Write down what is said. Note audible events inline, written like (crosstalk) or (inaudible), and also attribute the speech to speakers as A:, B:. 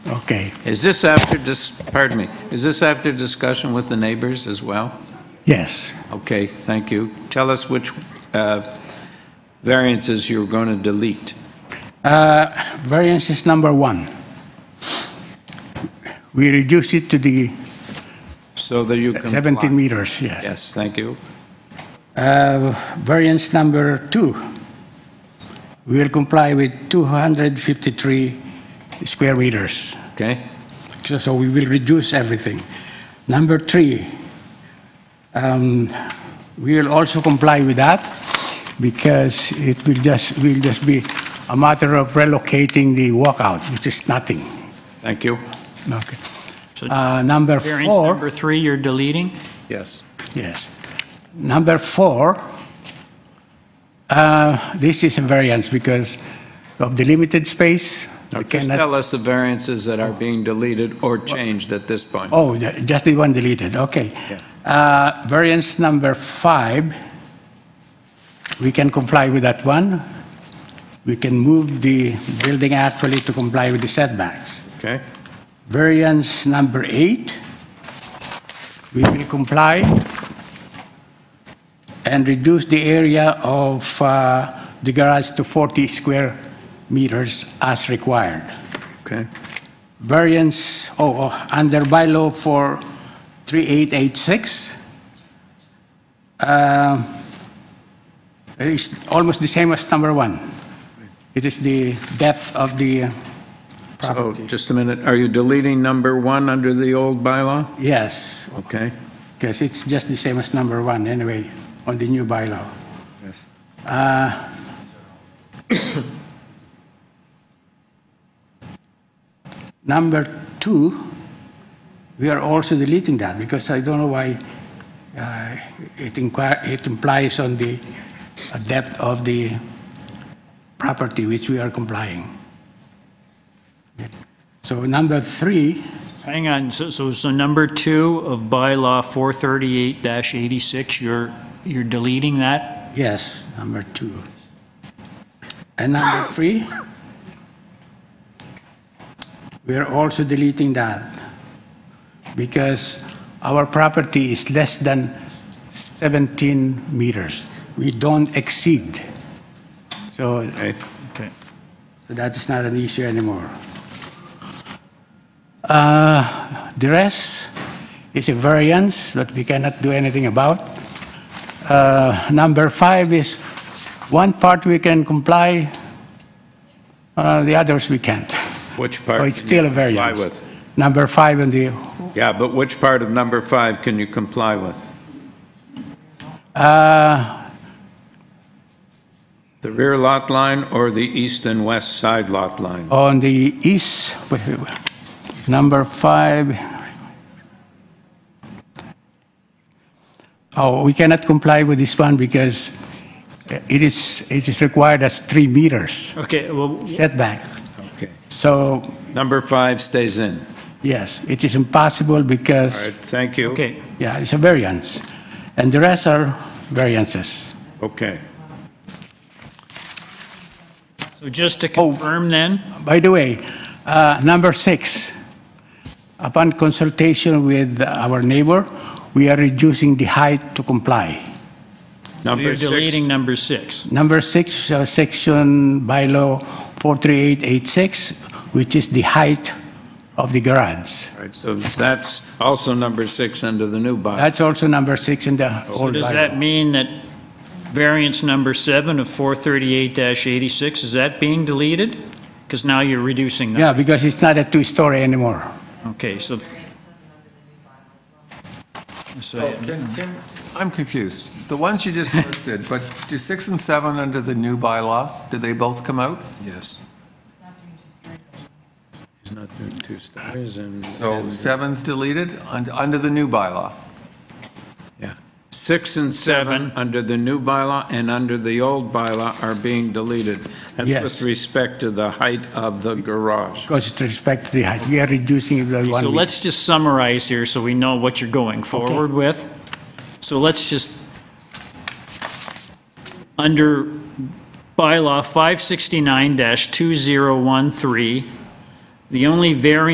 A: Okay,
B: Is this after, dis- pardon me, is this after discussion with the neighbors as well?
A: yes.
B: Okay, thank you. Tell us which uh, variances you're going to delete.
A: Uh, Variance is number one. We reduce it to the
B: So that you can.
A: 17 meters, yes.
B: Yes, thank you.
A: Uh, Variance number two, we will comply with 253 square meters.
B: Okay?
A: So so we will reduce everything. Number three, um, we will also comply with that because it will just, will just be a matter of relocating the walkout, which is nothing.
B: Thank you.
A: Okay.
C: So
A: Uh, Number
C: Variance
A: four,
C: number three, you're deleting?
B: Yes.
A: yes. Number four, uh, this is a variance because of the limited space. We
B: Just
A: cannot-
B: tell us the variances that are being deleted or changed at this point.
A: Oh, the- just the one deleted, okay. Uh, Variance number five, we can comply with that one. We can move the building actually to comply with the setbacks.
B: Okay?
A: Variance number eight, we will comply and reduce the area of uh, the garage to 40 square meters as required
B: Okay?
A: variance, oh, oh, under bylaw for 3886. Um, It's almost the same as number one. It is the depth of the uh,
B: Oh,
A: property.
B: just a minute. Are you deleting number one under the old bylaw?
A: Yes,
B: Okay?
A: because it's just the same as number one anyway, on the new bylaw.
B: Yes.
A: Number two, we are also deleting that because I don't know why uh, it inquire- it implies on the depth of the property which we are complying. So number three,
C: Hang on, so, so, so number two of bylaw 438-86, you're, you're deleting that?
A: yes, number two. And number three, we are also deleting that because our property is less than 17 meters. We don't exceed. So
B: Okay.
C: Okay.
A: so that is not an issue anymore. Uh, The rest is a variance that we cannot do anything about. Uh, Number five is, one part we can comply, uh, the others we can't.
B: Which part?
A: So it's
B: can you
A: still a
B: comply with?
A: variance. Number five and the,
B: Yeah, but which part of number five can you comply with?
A: uh,
B: The rear lot line or the east and west side lot line?
A: on the east, wait, wait, wait. number five. Oh, we cannot comply with this one because it is, it is required as three meters
C: Okay, well,
A: setback.
B: Okay.
A: So,
B: Number five stays in.
A: yes, it is impossible
B: All
A: because,
B: right, thank you.
C: okay,
A: yeah, it's a variance. And the rest are variances.
B: Okay.
C: so just to
B: Oh.
C: confirm then,
A: By the way, uh, number six, upon consultation with our neighbor, we are reducing the height to comply.
B: Number
C: you're deleting
B: six.
C: number six.
A: Number six, uh, section bylaw 43886, which is the height of the garage.
B: All right, so that's also number six under the new bylaw.
A: That's also number six in the
C: So
B: Oh,
A: old
C: does that
A: bylaw.
C: mean that variance number seven of 438-86, is that being deleted? Because now you're reducing that.
A: Yeah, because it's not a two-story anymore.
C: Okay, so. So,
D: Can- can- I'm confused. The ones you just listed, (laughs) but do six and seven under the new bylaw, did they both come out?
B: Yes. He's not doing two stories and.
D: So
B: and-
D: seven's deleted un- under the new bylaw?
B: Yeah. Six and seven,
C: Seven.
B: under the new bylaw and under the old bylaw, are being deleted. That's
A: Yes.
B: with respect to the height of the garage.
A: Because with respect to the height, we are reducing it by
C: So
A: one meter.
C: let's just summarize here so we know what you're going forward with. So let's just, under bylaw 569-2013, the only variance